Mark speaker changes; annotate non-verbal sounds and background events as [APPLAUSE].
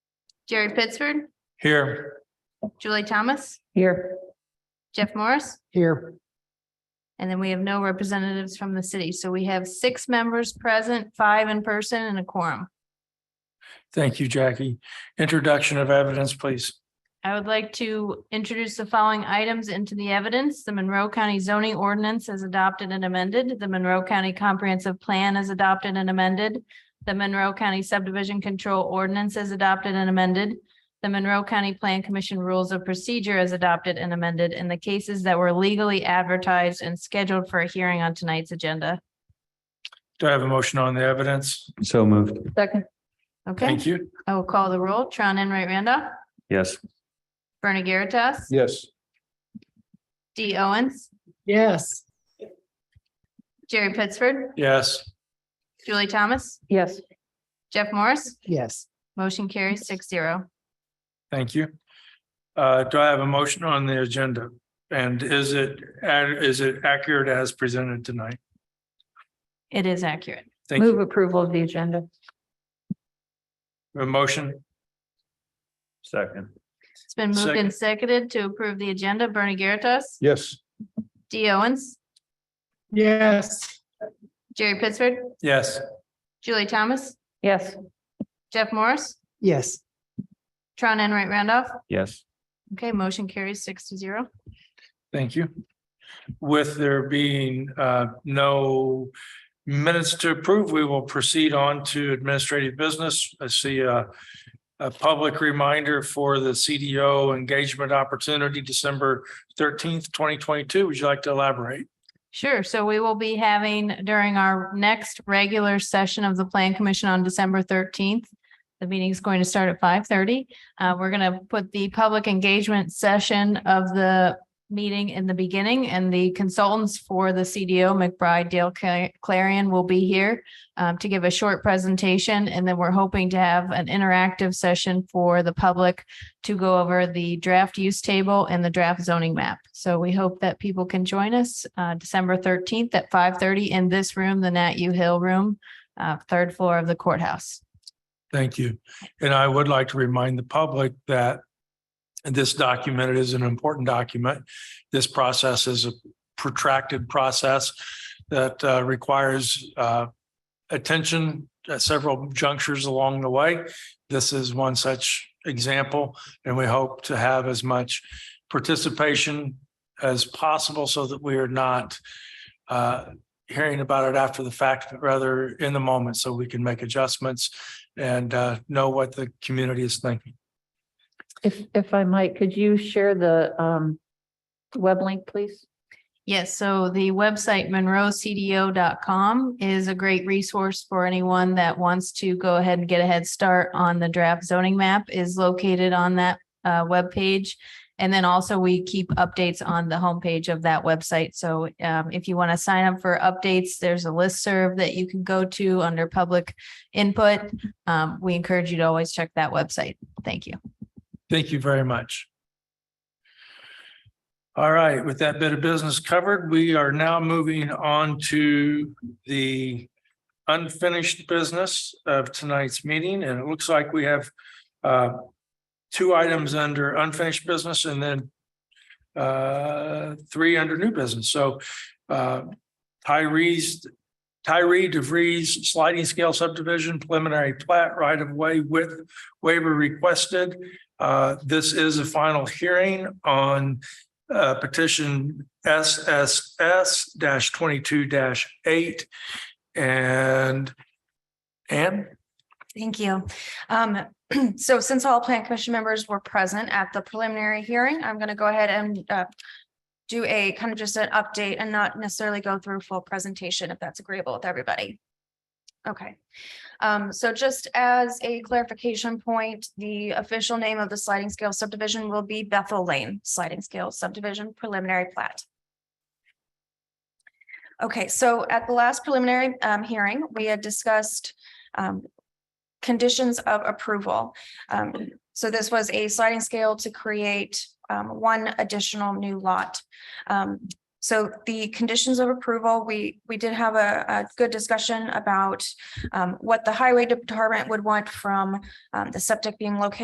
Speaker 1: Jerry Pittsford,
Speaker 2: Here.
Speaker 1: Julie Thomas,
Speaker 3: Here.
Speaker 1: Jeff Morris,
Speaker 3: Here.
Speaker 1: and then we have no representatives from the city. So we have six members present, five in person and a quorum.
Speaker 2: Thank you, Jackie. Introduction of evidence, please.
Speaker 1: I would like to introduce the following items into the evidence. The Monroe County zoning ordinance as adopted and amended. The Monroe County Comprehensive Plan as adopted and amended. The Monroe County Subdivision Control Ordinance as adopted and amended. The Monroe County Plan Commission Rules of Procedure as adopted and amended, and the cases that were legally advertised and scheduled for a hearing on tonight's agenda.
Speaker 2: Do I have a motion on the evidence?
Speaker 4: So moved.
Speaker 3: Second.
Speaker 1: Okay,
Speaker 2: Thank you.
Speaker 1: I will call the roll. Tron Enright Randolph,
Speaker 4: Yes.
Speaker 1: Bernie Garitas.
Speaker 5: Yes.
Speaker 1: Dee Owens,
Speaker 3: Yes.
Speaker 1: Jerry Pittsford,
Speaker 2: Yes.
Speaker 1: Julie Thomas,
Speaker 3: Yes.
Speaker 1: Jeff Morris.
Speaker 3: Yes.
Speaker 1: Motion carries six zero.
Speaker 2: Thank you. Uh, do I have a motion on the agenda? And is it, is it accurate as presented tonight?
Speaker 1: It is accurate.
Speaker 2: Thank
Speaker 3: Move
Speaker 2: you.
Speaker 3: approval of the agenda.
Speaker 2: A motion,
Speaker 4: Second.
Speaker 1: It's been moved
Speaker 2: Second.
Speaker 1: and seconded to approve the agenda. Bernie Garitas,
Speaker 5: Yes.
Speaker 1: Dee Owens,
Speaker 3: Yes.
Speaker 1: Jerry Pittsford,
Speaker 2: yes.
Speaker 1: Julie Thomas,
Speaker 3: Yes.
Speaker 1: Jeff Morris,
Speaker 3: Yes.
Speaker 1: Tron Enright Randolph.
Speaker 4: Yes.
Speaker 1: Okay, motion carries six to zero.
Speaker 2: Thank you. With there being uh no minutes to approve, we will proceed on to administrative business. I see a a public reminder for the CDO engagement opportunity, December thirteenth, twenty twenty-two. Would you like to elaborate?
Speaker 1: Sure. So we will be having during our next regular session of the Plan Commission on December thirteenth. The meeting is going to start at five thirty. Uh, we're going to put the public engagement session of the meeting in the beginning and the consultants for the CDO McBride Dale Cla- Clarion will be here um, to give a short presentation. And then we're hoping to have an interactive session for the public to go over the draft use table and the draft zoning map. So we hope that people can join us uh, December thirteenth at five thirty in this room, the Nat U Hill Room, uh, third floor of the courthouse.
Speaker 2: Thank you. And I would like to remind the public that this document is an important document. This process is a protracted process that uh, requires uh, attention at several junctures along the way. This is one such example, and we hope to have as much participation as possible so that we are not uh, hearing about it after the fact, but rather in the moment, so we can make adjustments and uh, know what the community is thinking.
Speaker 3: If, if I might, could you share the um web link, please?
Speaker 1: Yes, so the website monroecdo.com is a great resource for anyone that wants to go ahead and get a head start on the draft zoning map is located on that uh, webpage. And then also we keep updates on the homepage of that website. So um, if you want to sign up for updates, there's a listserv that you can go to under public input. Um, We encourage you to always check that website. Thank you.
Speaker 2: Thank you very much. All right, with that bit of business covered, we are now moving on to the unfinished business of tonight's meeting, and it looks like we have uh, two items under unfinished business and then uh, three under new business. So uh, Tyree's Tyree DeVries sliding scale subdivision preliminary plat right of way width waiver requested. Uh, This is a final hearing on uh, petition SSS twenty-two eight. And Ann,
Speaker 6: Thank you. Um, [CLEARS THROAT] so since all plant commission members were present at the preliminary hearing, I'm gonna go ahead and uh. Do a kind of just an update and not necessarily go through full presentation if that's agreeable with everybody. Okay, um, so just as a clarification point, the official name of the sliding scale subdivision will be Bethel Lane Sliding Scale Subdivision Preliminary Plat. Okay, so at the last preliminary um hearing, we had discussed um conditions of approval. Um, so this was a sliding scale to create um, one additional new lot. Um, so the conditions of approval, we, we did have a, a good discussion about um, what the highway department would want from um, the septic being located